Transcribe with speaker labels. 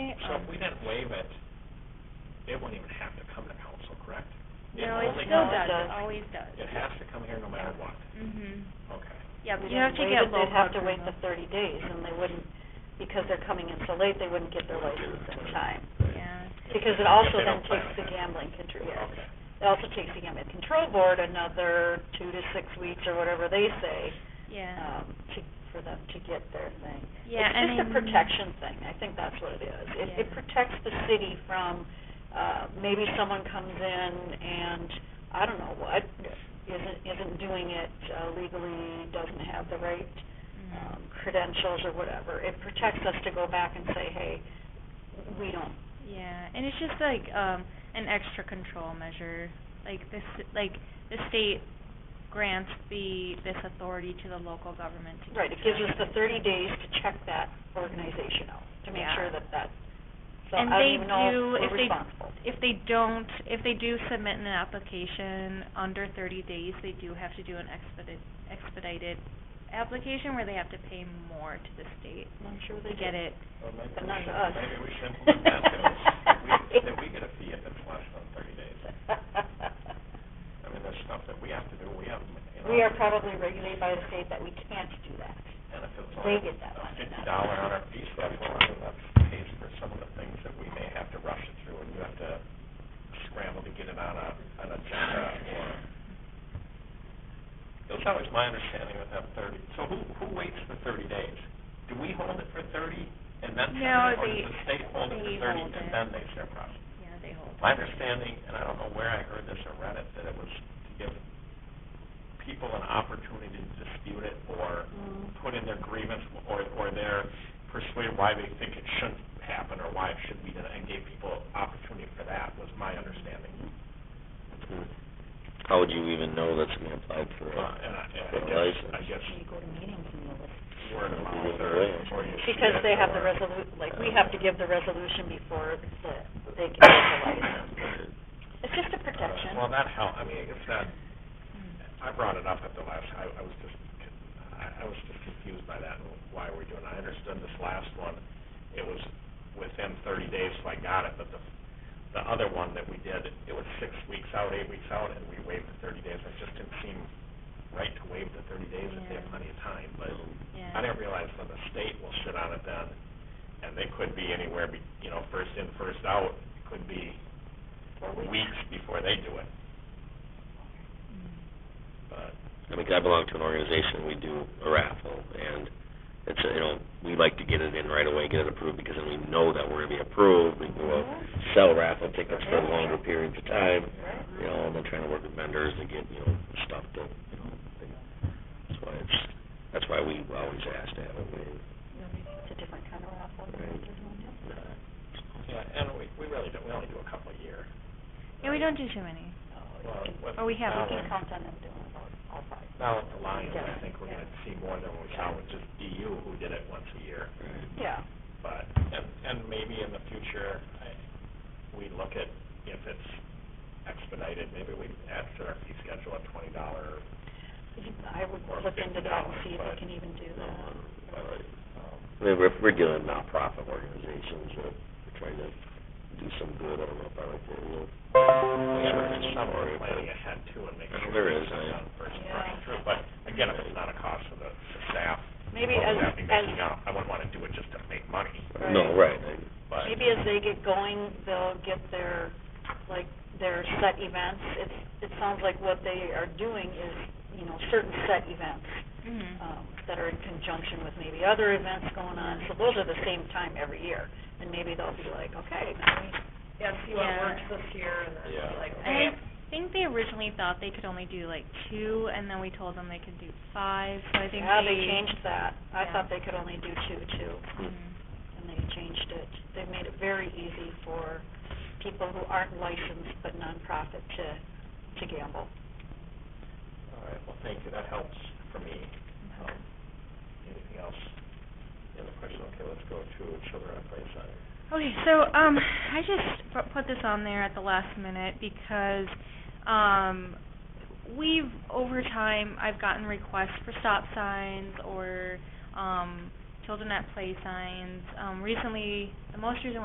Speaker 1: So if we didn't waive it, it wouldn't even have to come to council, correct? It
Speaker 2: No, it still
Speaker 1: only comes-
Speaker 2: does,
Speaker 3: does.
Speaker 2: it always does.
Speaker 1: It has to come here no matter what,
Speaker 2: Mm-hmm,
Speaker 1: okay.
Speaker 2: yep,
Speaker 3: We
Speaker 2: you have to
Speaker 3: didn't
Speaker 2: get
Speaker 3: waive it,
Speaker 2: local
Speaker 3: They'd have to wait
Speaker 2: approval.
Speaker 3: the thirty days, and they wouldn't, because they're coming in so late, they wouldn't get their license in time.
Speaker 2: Yeah,
Speaker 3: Because
Speaker 1: If
Speaker 3: it also
Speaker 1: they
Speaker 3: then
Speaker 1: don't plan
Speaker 3: takes the
Speaker 1: ahead.
Speaker 3: gambling control, yes.
Speaker 1: Okay.
Speaker 3: It also takes the gambling control board another two to six weeks, or whatever they say,
Speaker 2: yeah,
Speaker 3: um, to, for them to get their thing.
Speaker 2: yeah, and
Speaker 3: It's just a protection thing, I think that's what it is. It, it
Speaker 2: Yeah.
Speaker 3: protects the city from, uh, maybe someone comes in and, I don't know what, isn't, isn't doing it uh, legally, doesn't have the right,
Speaker 2: Mhm.
Speaker 3: um, credentials or whatever. It protects us to go back and say, hey, we don't,
Speaker 2: Yeah, and it's just like um an extra control measure. Like this, like the state grants the this authority to the local government to.
Speaker 3: right, it
Speaker 2: keep
Speaker 3: gives us
Speaker 2: track
Speaker 3: the
Speaker 2: of it.
Speaker 3: thirty days to check that organization out, to make
Speaker 2: Yeah.
Speaker 3: sure that that, so I
Speaker 2: And
Speaker 3: don't
Speaker 2: they
Speaker 3: even know
Speaker 2: do-
Speaker 3: if
Speaker 2: if
Speaker 3: we're
Speaker 2: they-
Speaker 3: responsible.
Speaker 2: If they don't, if they do submit an application under thirty days, they do have to do an expedited expedited application where they have to pay more to the state
Speaker 3: I'm sure they
Speaker 2: to get it.
Speaker 1: Well, maybe
Speaker 3: But
Speaker 1: we
Speaker 3: not
Speaker 1: should-
Speaker 3: to us.
Speaker 1: Maybe we should implement that, though. If we- if we get a fee if it's less than thirty days. I mean, there's stuff that we have to do, we have, you know.
Speaker 3: We are probably regulated by the state that we can't do that.
Speaker 1: And if it's
Speaker 3: They
Speaker 1: only
Speaker 3: get that
Speaker 1: a
Speaker 3: money,
Speaker 1: fifty
Speaker 3: not
Speaker 1: dollar on our fee schedule, I mean, that pays for some of the things that we may have to rush it through, and you have to scramble to get it on a, on a agenda, or. That's always my understanding of that thirty, so who, who waits the thirty days? Do we hold it for thirty, and then send
Speaker 2: No,
Speaker 1: it, or
Speaker 2: they-
Speaker 1: does the state hold it
Speaker 2: they
Speaker 1: for thirty,
Speaker 2: hold
Speaker 1: and
Speaker 2: it.
Speaker 1: then they share profit?
Speaker 2: Yeah, they hold.
Speaker 1: My understanding, and I don't know where I heard this or read it, that it was to give people an opportunity to dispute it or
Speaker 3: Mm-hmm.
Speaker 1: put in their grievance or, or their persuade why they think it shouldn't happen or why it should be done, and gave people opportunity for that, was my understanding.
Speaker 4: Hmm. How would you even know that's being applied for?
Speaker 1: Uh,
Speaker 4: a-
Speaker 1: And I, and I
Speaker 4: For a
Speaker 1: guess,
Speaker 4: license.
Speaker 1: I guess
Speaker 3: You go to meetings and you'll listen.
Speaker 1: word of mouth or, or you see
Speaker 3: Because
Speaker 1: it
Speaker 3: they have the
Speaker 1: or-
Speaker 3: resolu, like, we have to give the resolution before the, they can get the license. It's just a protection.
Speaker 1: Uh, Well, that help, I mean, I guess that,
Speaker 2: Hmm.
Speaker 1: I brought it up at the last, I, I was just, con- I, I was just confused by that and why we're doing, I understood this last one, it was within thirty days, so I got it, but the, the other one that we did, it was six weeks out, eight weeks out, and we waived the thirty days, it just didn't seem right to waive the thirty days if they have
Speaker 2: Yeah.
Speaker 1: plenty of time,
Speaker 4: Oh.
Speaker 1: but
Speaker 2: Yeah.
Speaker 1: I didn't realize that the state will sit on it then, and they could be anywhere, be- you know, first in, first out, it could be weeks before they do it, but.
Speaker 4: I mean, 'cause I belong to an organization, we do a raffle, and it's, a- you know, we like to get it in right away, get it approved, because then we know that we're gonna be approved, we can go sell raffle tickets for longer periods of time,
Speaker 3: Right.
Speaker 4: you know, and then trying to work with vendors to get, you know, stuff to, you know, they- that's why it's, that's why we always ask to have it waived.
Speaker 3: It's a different kind of raffle. than what they're doing now.
Speaker 1: Yeah, and we, we really don't, we only do a couple a year.
Speaker 2: Yeah, we don't do too many.
Speaker 1: Well, with-
Speaker 2: Oh, we have,
Speaker 1: now
Speaker 3: We can
Speaker 1: with-
Speaker 3: count on them doing it all, all five.
Speaker 1: Now with the Lions, I
Speaker 3: Yeah.
Speaker 1: think we're gonna see more than we saw with just DU, who did it once a year.
Speaker 3: Yeah.
Speaker 1: But, and, and maybe in the future, I, we look at if it's expedited, maybe we add to our fee schedule a twenty dollar,
Speaker 3: I would
Speaker 1: Or
Speaker 3: look into that and see if
Speaker 1: $50,
Speaker 3: we can even do that.
Speaker 1: Uh, um,
Speaker 4: I mean, we're, we're dealing with nonprofit organizations, that are trying to do some good, I don't know if I like the, you know,
Speaker 1: we have
Speaker 4: service
Speaker 1: some
Speaker 4: or-
Speaker 1: planning ahead too and make
Speaker 4: Well,
Speaker 1: sure.
Speaker 4: there
Speaker 1: that
Speaker 4: is,
Speaker 1: it's
Speaker 4: I-
Speaker 1: done First and
Speaker 3: Yeah.
Speaker 1: rushing through, but again, if it's not a cost to the the staff.
Speaker 3: Maybe
Speaker 1: well,
Speaker 3: as,
Speaker 1: we'd have to be
Speaker 3: as,
Speaker 1: making out, I wouldn't wanna do it just to make money,
Speaker 4: No, right, I-
Speaker 1: but.
Speaker 3: maybe as they get going, they'll get their, like, their set events. It's, it sounds like what they are doing is, you know, certain set events.
Speaker 2: Mm-hmm.
Speaker 3: um, that are in conjunction with maybe other events going on, so those are the same time every year. And maybe they'll be like, okay, now we-
Speaker 5: Yeah, see what
Speaker 2: Yeah.
Speaker 5: works this year and then
Speaker 1: Yeah.
Speaker 5: be like, okay.
Speaker 2: I think they originally thought they could only do like two, and then we told them they could do five, so I think they...
Speaker 3: yeah, they changed that. I
Speaker 2: Yeah.
Speaker 3: thought they could only do two, too,
Speaker 2: Mhm.
Speaker 3: and they changed it. They've made it very easy for people who aren't licensed but nonprofit to, to gamble.
Speaker 1: All right, well, thank you, that helps for me. Um, Anything else? Any other question? Okay, let's go to children at play center.
Speaker 2: Okay, so, um, I just pu- put this on there at the last minute because, um, we've, over time, I've gotten requests for stop signs or, um, children at play signs. Um, recently, the most recent